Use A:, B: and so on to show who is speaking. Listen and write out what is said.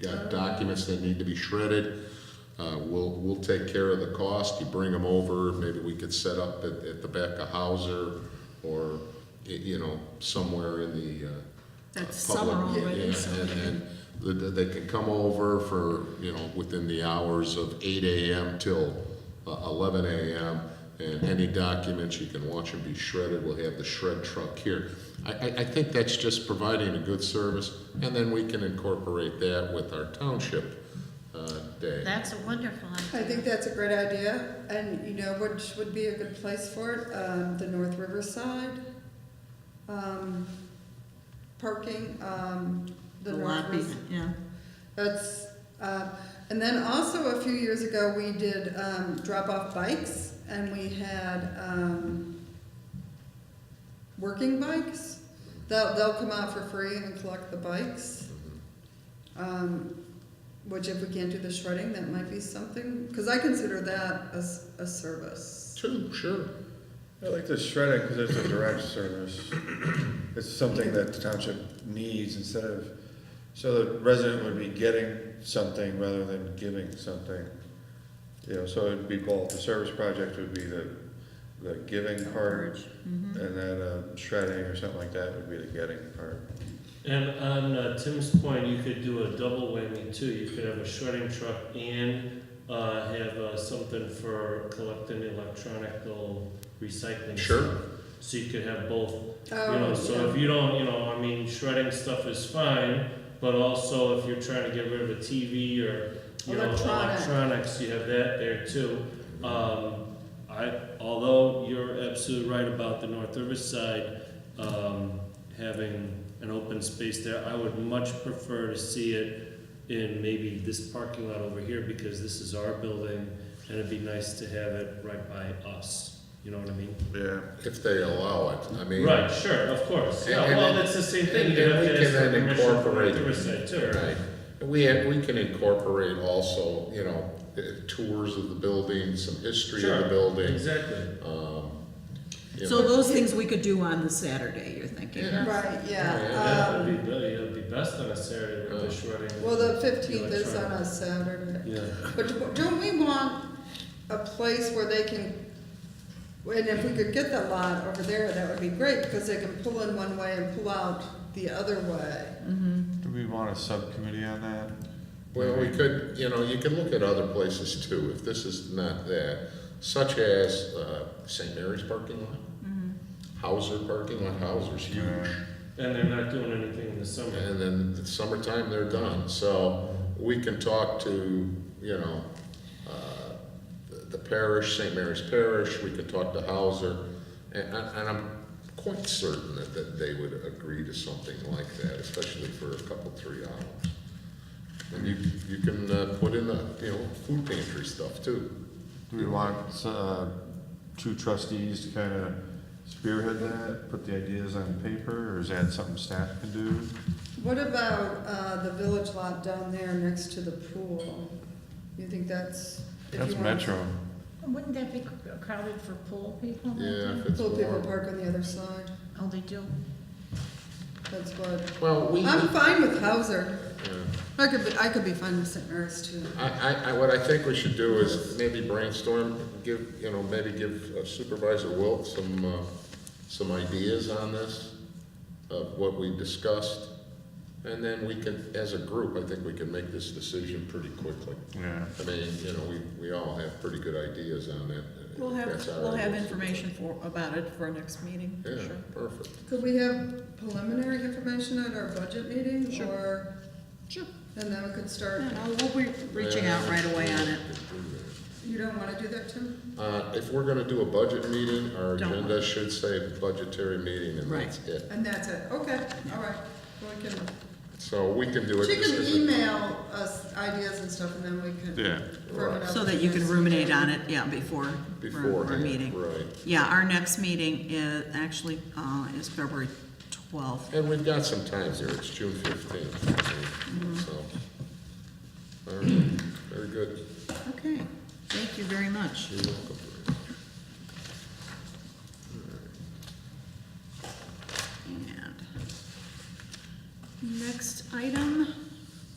A: got documents that need to be shredded. Uh, We'll, we'll take care of the cost, you bring them over, maybe we could set up at, at the back of Hauser or, y- you know, somewhere in the. uh,
B: That's
A: public-
B: summer
A: yeah,
B: already,
A: yeah,
B: so-
A: And, and th- th- they can come over for, you know, within the hours of eight AM till uh, eleven AM. And any documents, you can watch them be shredded, we'll have the shred truck here. I, I, I think that's just providing a good service, and then we can incorporate that with our township, uh, day.
B: That's a wonderful idea.
C: I think that's a great idea, and you know, which would be a good place for it, um, the North Riverside, um, parking, um, the
B: The
C: North
B: lobby,
C: Riverside.
B: yeah.
C: That's, uh, and then also a few years ago, we did, um, drop off bikes, and we had, um, working bikes. They'll, they'll come out for free and collect the bikes. Um, which if we can't do the shredding, that might be something, because I consider that as a service.
A: Two, sure.
D: I like the shredding because it's a direct service. It's something that the township needs instead of, so the resident would be getting something rather than giving something. You know, so it'd be both, the service project would be the, the giving part,
B: Mhm.
D: and then uh, shredding or something like that would be the getting part.
E: And on uh, Tim's point, you could do a double whammy too. You could have a shredding truck and uh, have uh, something for collecting electronic recycling.
A: Sure.
E: stuff. So you could have both, you know,
C: Oh,
E: so if you don't, you know, I mean, shredding stuff is fine, but also if you're trying to get rid of a TV or, you know,
C: Electronic.
E: electronics, you have that there too. Um, I, although you're absolutely right about the North Riverside, um, having an open space there, I would much prefer to see it in maybe this parking lot over here, because this is our building, and it'd be nice to have it right by us, you know what I mean?
D: Yeah.
A: If they allow it, I mean.
E: Right, sure, of course, yeah,
A: And- and
E: well,
A: then-
E: that's the same thing,
A: And
E: you have
A: and we
E: to
A: can
E: ask for
A: then
E: permission from North
A: incorporate.
E: Riverside too,
A: Right. And we, have- we can incorporate also, you know, eh, tours of the building, some history of the
E: Sure.
A: building.
E: Exactly.
A: um, you
F: So
A: know.
F: those things we could do on the Saturday, you're thinking?
A: Yeah.
C: Oh, Right,
E: Yeah,
C: yeah,
E: it'd
C: um,
E: Oh, be, be- it'd be best on a Saturday with
A: Uh,
E: the shredding.
C: well, the fifteenth is on
E: electronic.
C: a Saturday.
E: Yeah.
C: But don't we want a place where they can, and if we could get that lot over there, that would be great, because they can pull in one way and pull out the other way.
D: Do we want a subcommittee on that?
A: Well, we could, you know, you can look at other places too, if this is not that, such as, uh, St. Mary's parking lot. Hauser parking lot, Hauser's huge.
E: And they're not doing anything in the summer.
A: And then it's summertime, they're done, so we can talk to, you know, uh, the- the parish, St. Mary's Parish, we could talk to Hauser, and, and and I'm quite certain that, that they would agree to something like that, especially for a couple, three hours. And you, you can, uh, put in the, you know, food pantry stuff too.
D: Do we want, uh, two trustees to kind of spearhead that, put the ideas on paper, or is that something staff can do?
C: What about, uh, the village lot down there next to the pool? You think that's? if you
D: That's
C: want-
D: Metro.
B: Wouldn't that be crowded for pool
F: Uh-huh.
B: people?
A: Yeah, if it's
C: Pool people
A: warm.
C: park on the other side,
B: Oh, they do?
C: that's what,
A: Well, we,
C: I'm fine with Hauser,
A: yeah.
C: I could, be- I could be fine with St. Mary's too.
A: I, I, I, what I think we should do is maybe brainstorm, give, you know, maybe give uh, Supervisor Wilt some, uh, some ideas on this, of what we discussed, and then we can, as a group, I think we can make this decision pretty quickly.
D: Yeah.
A: I mean, you know, we, we all have pretty good ideas on that. and
F: We'll have,
A: that's our
F: we'll have
A: ideas.
F: information for, about it for our next meeting,
A: Yeah,
F: sure.
A: perfect.
C: Could we have preliminary information at our budget meeting,
F: Sure.
C: or,
F: Sure.
C: and then we could start,
F: Yeah, no, we'll be reaching out right away on it.
C: you don't wanna do that, Tim?
A: Uh, if we're gonna do a budget meeting, our
F: Don't.
A: agenda should say budgetary meeting, and
F: Right.
A: that's it.
C: And that's it, okay, all right. Well, we can-
A: So we can do it.
C: She
A: this
C: can
A: isn't-
C: email us ideas and stuff, and then we can.
D: Yeah.
C: firm it up
F: So that you can
C: next
F: ruminate
C: meeting.
F: on it, yeah, before, for our
A: beforehand,
F: meeting.
A: right.
F: Yeah, our next meeting is, actually, uh, is February twelfth.
A: And we've got some time here, it's June fifteenth, so. All right, very good,
F: Okay, thank you very much.
A: you're welcome.